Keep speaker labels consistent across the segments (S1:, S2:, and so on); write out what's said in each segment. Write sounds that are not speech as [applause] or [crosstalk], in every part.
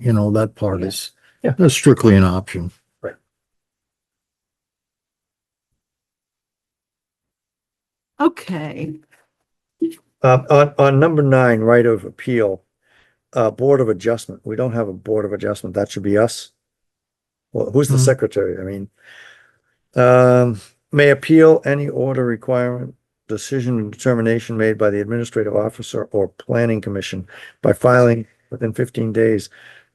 S1: you know, that part
S2: Yeah.
S1: is,
S2: Yeah.
S1: that's strictly an option.
S3: Okay,
S1: Uh, on, on number nine, right of appeal, uh, Board of Adjustment, we don't have a Board of Adjustment, that should be us. Well, who's
S3: Mm-hmm.
S1: the
S2: Hmm.
S1: secretary? I mean, um, may appeal any order requirement, decision and determination made by the administrative officer or planning commission by filing within fifteen days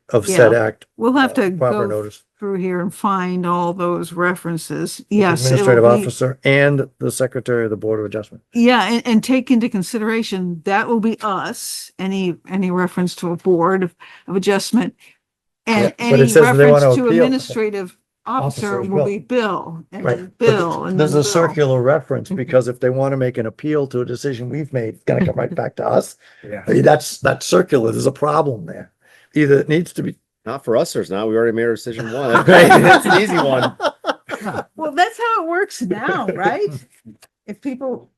S1: of said act.
S3: we'll have to
S1: Uh, Proper
S3: go
S1: notice.
S3: through here and find all those references. Yes. it'll
S1: Administrative
S3: be-
S1: officer and the secretary of the Board of Adjustment.
S3: Yeah, and, and take into consideration, that will be us, any, any reference to a board of of adjustment. And
S1: Yeah, but it
S3: any
S1: says they wanna
S3: reference to
S1: appeal.
S3: administrative officer
S1: Officer,
S3: will
S1: Bill.
S3: be Bill, and
S1: Right.
S3: then
S1: But
S3: Bill, and then
S1: There's a
S3: Bill.
S1: circular reference,
S4: Mm-hmm.
S1: because if they want to make an appeal to a decision we've made, it's gonna come
S4: [laughs]
S1: right back to us.
S2: Yeah.
S1: I mean, That's, that's circular, there's a problem there. Either it needs to be.
S5: Not for us, there's not. We already made our
S1: [laughs]
S5: decision one. [laughs] That's an easy one.
S3: Well, that's how it works [laughs] now, right? If people,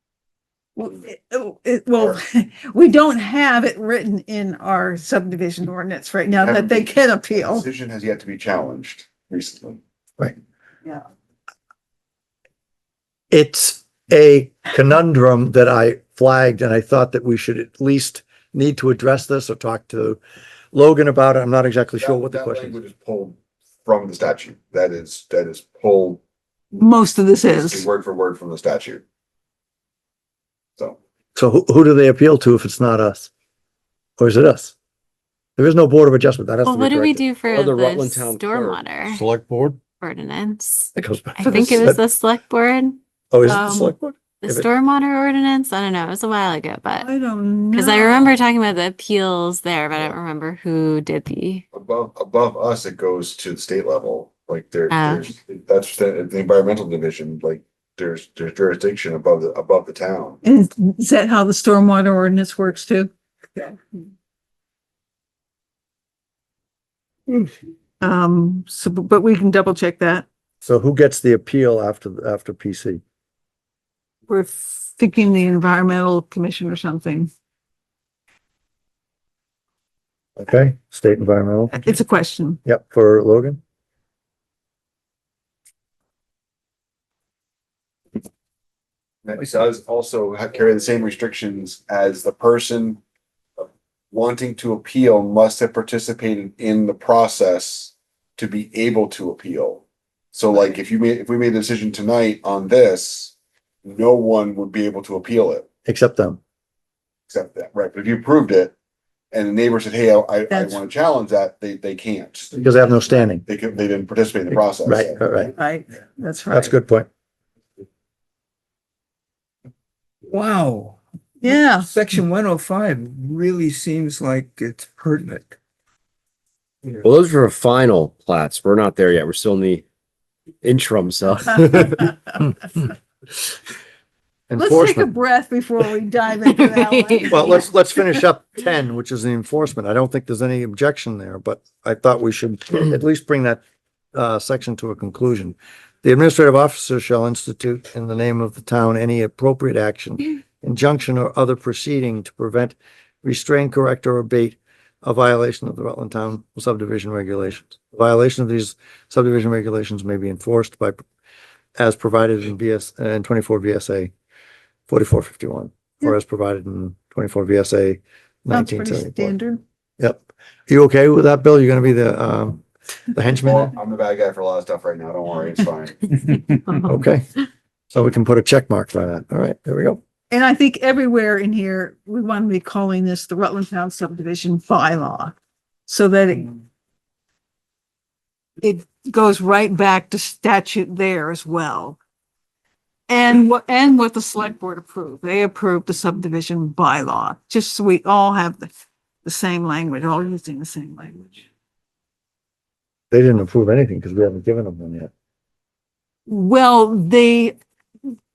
S3: well, it- oh, it- well, [laughs] we don't have it written in our subdivision ordinance right now that they can
S1: Oh.
S3: appeal.
S6: Decision has yet to be challenged recently.
S1: It's a conundrum that I flagged, and I thought that we should at least need to address this or talk to Logan about it. I'm not exactly sure
S6: That-
S1: what the
S6: that
S1: question
S6: language
S1: is.
S6: is Pulled from the statute. That is, that is pulled
S3: Most of this is,
S6: word for word from the statute. So.
S1: So who, who do they appeal to if it's not us? Or is it us? There is no Board of Adjustment, that has to
S4: Well,
S1: be
S4: what do we
S1: corrected.
S4: do for
S5: Or the
S4: the
S5: Rutland Town Clerk.
S4: stormwater
S2: Select board?
S4: ordinance?
S1: That goes back
S4: I
S1: to
S4: think it was
S1: the-
S4: the select board,
S1: Oh, is it the
S4: um,
S1: select board?
S4: the
S1: If it-
S4: stormwater ordinance. I don't know. It was a while ago, but
S3: I don't know.
S4: because I remember talking about the appeals there, but I don't remember who did the.
S6: Above, above us, it goes to the state level, like there,
S4: Ah.
S6: there's, that's the, the environmental division, like there's, there's jurisdiction above the, above the town.
S3: Is, is that how the stormwater ordinance works too? Um, so, bu- but we can double check that.
S1: So who gets the appeal after, after PC?
S3: We're thinking the environmental commission or something.
S1: Okay, state environmental,
S3: It's a question.
S1: yep, for Logan.
S6: That does also ha- carry the same restrictions as the person wanting to appeal must have participated in the process to be able to appeal. So like if you made, if we made a decision tonight on this, no one would be able to appeal it
S1: Except them.
S6: except that, right? But if you approved it and the neighbor said, hey, I, I- I
S3: That's-
S6: want to challenge that, they, they can't.
S1: Because they have no standing.
S6: They could, they didn't participate in the process.
S1: Right, right, right.
S3: Right, that's right.
S1: That's a good point.
S2: Wow.
S3: Yeah.
S2: Section one oh five really seems like it's pertinent.
S5: Well, those were final plats. We're not there yet. We're still in the interim, so.
S3: Let's take a
S1: Enforcement.
S3: breath before we dive into that one.
S1: Well, let's, let's finish up ten, which is the enforcement. I don't think there's any objection there, but I thought we should at least bring that uh, section to a conclusion. The administrative officer shall institute in the name of the town any appropriate action, injunction or other proceeding to prevent, restrain, correct or abate a violation of the Rutland Town subdivision regulations. Violation of these subdivision regulations may be enforced by, as provided in VS, uh, in twenty-four VSA forty-four fifty-one, or as provided in twenty-four VSA
S3: Sounds
S1: nineteen
S3: pretty
S1: seventy-four.
S3: standard.
S1: Yep. You okay with that, Bill? You're gonna be the, um, the henchman? there?
S6: Well, I'm the bad guy for a lot of stuff right now. Don't worry, it's fine.
S1: Okay. So we can put a check mark by that. All right, there we go.
S3: And I think everywhere in here, we want to be calling this the Rutland Town subdivision bylaw. So that it it goes right back to statute there as well. And what, and what the select board approved, they approved the subdivision bylaw, just so we all have the, the same language, all using the same language.
S1: They didn't approve anything because we haven't given them one yet.
S3: Well, they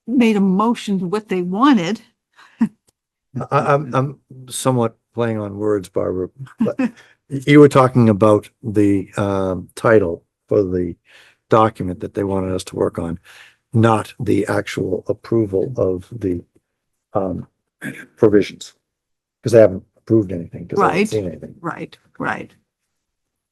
S3: made a motion to what they wanted.
S1: I, I'm, I'm somewhat playing on words, Barbara, but you were talking about the, um, title for the document that they wanted us to work on, not the actual approval of the, um, provisions. Because they haven't approved anything, because they haven't
S3: Right.
S1: seen anything.
S3: Right, right.